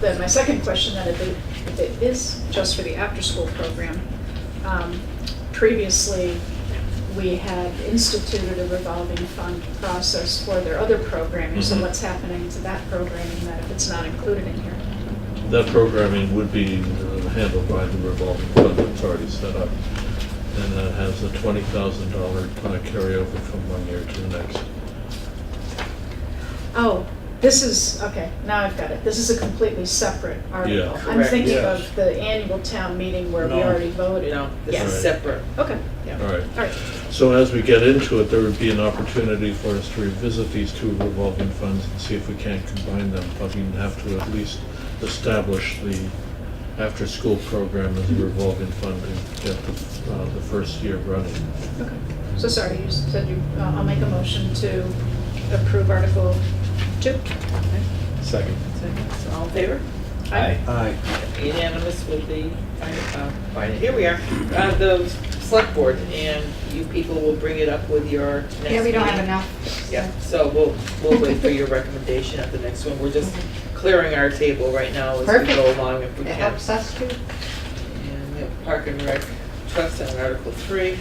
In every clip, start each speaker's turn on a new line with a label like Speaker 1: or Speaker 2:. Speaker 1: then my second question then, if it, if it is just for the after-school program, um, previously, we had instituted a revolving fund process for their other programming, so
Speaker 2: Mhm.
Speaker 1: what's happening to that programming that if it's not included in here?
Speaker 2: That programming would be uh, handled by the revolving fund that's already set up. And that has a $20,000 uh, carryover from one year to the next.
Speaker 1: Oh, this is, okay, now I've got it. This is a completely separate article. I'm
Speaker 3: Correct.
Speaker 1: thinking
Speaker 4: Yes.
Speaker 1: of the annual town meeting where we
Speaker 4: No.
Speaker 1: already voted.
Speaker 3: No, this
Speaker 1: Yes.
Speaker 3: is separate.
Speaker 1: Okay, yeah,
Speaker 2: All right.
Speaker 1: all right.
Speaker 2: So as we get into it, there would be an opportunity for us to revisit these two revolving funds and see if we can't combine them, but we have to at least establish the after-school program as a revolving fund and get the, uh, the first year running.
Speaker 1: Okay, so sorry, you said you, uh, I'll make a motion to approve Article Two.
Speaker 5: Second.
Speaker 3: Second, so all in favor?
Speaker 1: Aye.
Speaker 5: Aye.
Speaker 3: Unanimous with the, fin- uh, fin- here we are, uh, the select board, and you people will bring it up with your next meeting.
Speaker 6: Yeah, we don't have enough.
Speaker 3: Yeah, so we'll, we'll wait for your recommendation at the next one. We're just clearing our table right now as we
Speaker 6: Perfect.
Speaker 3: go along if we
Speaker 6: It
Speaker 3: can.
Speaker 6: helps us too.
Speaker 3: And we have Park and Rec Trust on Article Three.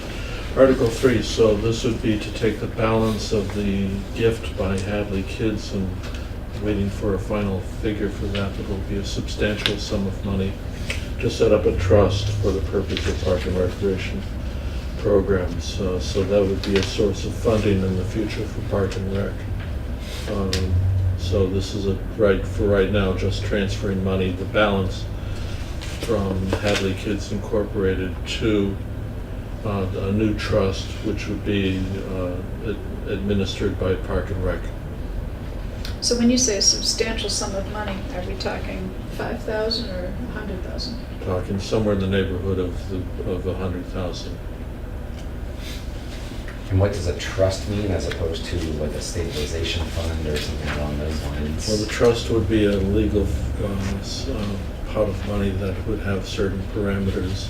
Speaker 2: Article three, so this would be to take the balance of the gift by Hadley Kids and waiting for a final figure for that, but it'll be a substantial sum of money to set up a trust for the purpose of park and recreation programs. Uh, So that would be a source of funding in the future for park and rec. Um, So this is a, right, for right now, just transferring money, the balance from Hadley Kids Incorporated to uh, a new trust, which would be uh, ad- administered by Park and Rec.
Speaker 1: So when you say a substantial sum of money, are we talking five thousand or a hundred thousand?
Speaker 2: Talking somewhere in the neighborhood of, the- of a hundred thousand.
Speaker 7: And what does a trust mean as opposed to like a stabilization fund or something along those lines?
Speaker 2: Well, the trust would be a legal uh, s- uh, pot of money that would have certain parameters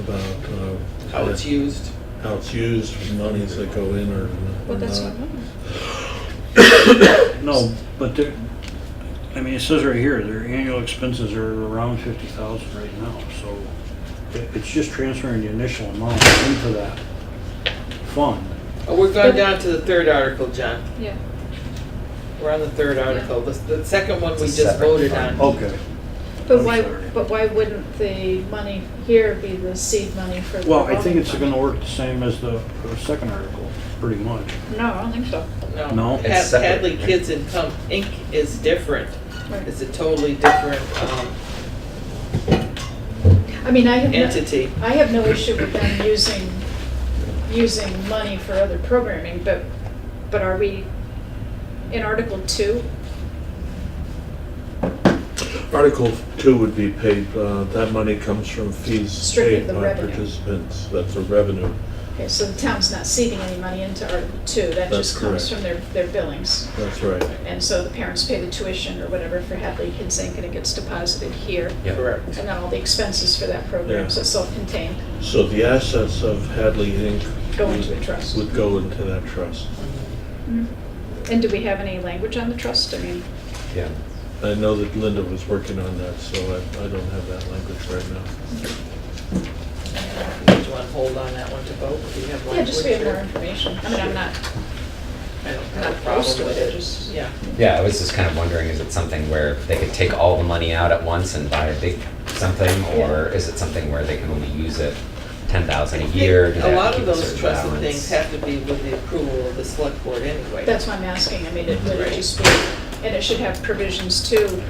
Speaker 2: about. uh,
Speaker 3: how it's used.
Speaker 2: How it's used, monies that go in or
Speaker 1: Well,
Speaker 2: or
Speaker 1: that's what
Speaker 2: not.
Speaker 1: I'm wondering.
Speaker 4: No, but they're, I mean, it says right here, their annual expenses are around fifty thousand right now, so it- it's just transferring the initial amount into that fund.
Speaker 3: Oh, we're going down to the third article, John.
Speaker 1: Yeah,
Speaker 3: We're on the third article. The, the second one we
Speaker 7: It's a
Speaker 3: just
Speaker 7: separate Oh,
Speaker 3: voted
Speaker 7: fund.
Speaker 3: on.
Speaker 4: Okay.
Speaker 1: but
Speaker 4: I'm
Speaker 1: why,
Speaker 4: sorry.
Speaker 1: but why wouldn't the money here be the seed money for the
Speaker 4: Well, I think
Speaker 1: revolving
Speaker 4: it's
Speaker 1: fund?
Speaker 4: gonna work the same as the the second article, pretty much.
Speaker 1: No, I don't think so.
Speaker 3: No,
Speaker 4: No.
Speaker 3: Had-
Speaker 7: It's separate.
Speaker 3: Hadley Kids Income Inc. is different.
Speaker 1: Right.
Speaker 3: It's a totally different um,
Speaker 1: I mean, I have. no-
Speaker 3: entity.
Speaker 1: I have no issue with them using, using money for other programming, but, but are we in Article Two?
Speaker 2: Article two would be paid, uh, that money comes from fees
Speaker 1: Strictly
Speaker 2: paid
Speaker 1: the
Speaker 2: by
Speaker 1: revenue.
Speaker 2: participants. That's a revenue.
Speaker 1: Okay, so the town's not seeding any money into Article Two, that
Speaker 2: That's
Speaker 1: just comes
Speaker 2: correct.
Speaker 1: from their, their billings.
Speaker 2: That's right.
Speaker 1: And so the parents pay the tuition or whatever for Hadley Kids Inc. and it gets deposited here.
Speaker 7: Yeah.
Speaker 3: Correct.
Speaker 1: And then all the expenses for that program,
Speaker 2: Yeah.
Speaker 1: so it's self-contained,
Speaker 2: So the assets of Hadley Inc.
Speaker 1: go into a trust.
Speaker 2: would go into that trust.
Speaker 1: Mhm. And do we have any language on the trust? I mean,
Speaker 7: Yeah.
Speaker 2: I know that Linda was working on that, so I, I don't have that language right now.
Speaker 3: Do you want to hold on that one to vote? Do you have
Speaker 1: yeah,
Speaker 3: language?
Speaker 1: just we have more
Speaker 3: or-
Speaker 1: information. I mean, I'm not,
Speaker 3: I don't
Speaker 1: I'm not
Speaker 3: have a
Speaker 1: opposed
Speaker 3: problem
Speaker 1: to
Speaker 3: with
Speaker 1: it, I
Speaker 3: it.
Speaker 1: just.
Speaker 3: Yeah.
Speaker 7: Yeah, I was just kind of wondering, is it something where they could take all the money out at once and buy a big something? Or is it something where they can only use it ten thousand a year? Do they
Speaker 3: A
Speaker 7: have to
Speaker 3: lot of
Speaker 7: keep a
Speaker 3: those
Speaker 7: certain
Speaker 3: trusted
Speaker 7: balance?
Speaker 3: things have to be with the approval of the select board anyway.
Speaker 1: That's why I'm asking, I mean, it would
Speaker 3: Right.
Speaker 1: just be, and it should have provisions too,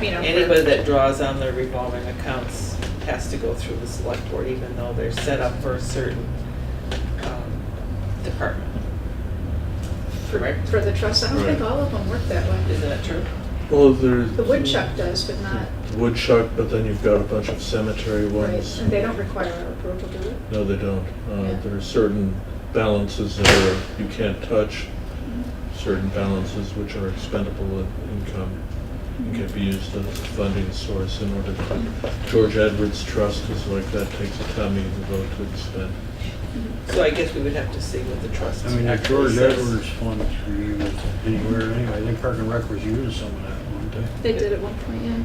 Speaker 1: you know. for-
Speaker 3: Anybody that draws on their revolving accounts has to go through the select board, even though they're set up for a certain um, department. Correct?
Speaker 1: For the trust, I don't think
Speaker 2: Right.
Speaker 1: all of them work that way.
Speaker 3: Isn't that true?
Speaker 2: Well, there's.
Speaker 1: The woodchuck does, but not,
Speaker 2: Woodchuck, but then you've got a bunch of cemetery
Speaker 1: right,
Speaker 2: ones.
Speaker 1: and they don't require our approval, do they?
Speaker 2: No, they don't.
Speaker 1: Yeah.
Speaker 2: Uh, there are certain balances that are, you can't touch, certain balances which are expendable in- income. and Can be used as a funding source in order to, George Edwards Trust is like that, takes a town meeting vote to expend.
Speaker 3: So I guess we would have to see what the trust.
Speaker 4: I mean, if
Speaker 3: actually
Speaker 4: George
Speaker 3: says.
Speaker 4: Edwards funds were used anywhere anyway, I think Park and Rec was using some of that, weren't they?
Speaker 1: They did at one point, yeah.